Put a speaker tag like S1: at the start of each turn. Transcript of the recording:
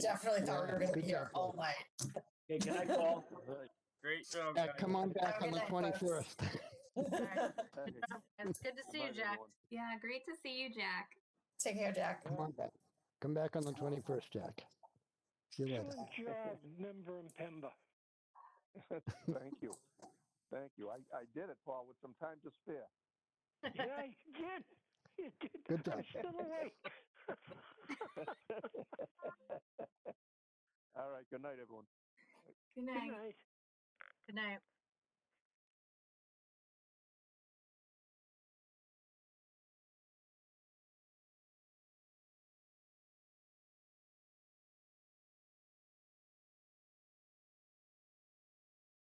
S1: definitely thought we were going to
S2: Be
S1: be here all
S2: careful.
S1: night.
S3: Okay, can I call?
S4: Great job.
S2: Yeah,
S4: guys.
S2: come on back
S1: Have a
S2: on the
S1: good night, folks.
S2: 21st.
S5: It's good to see
S4: Bye,
S5: you, Jack.
S4: everyone.
S6: Yeah, great to see you, Jack.
S1: Take care, Jack.
S2: Come on back. Come back on the 21st, Jack. See you later.
S7: Good job, member and Pemba.
S8: Thank you. Thank you. I, I did it, Paul, with some time to spare.
S7: Yeah, you did. You did.
S2: Good
S7: I'm
S2: job.
S7: still awake.
S8: All right. Good night, everyone.
S5: Good
S7: Good
S5: night.
S7: night.
S5: Good night.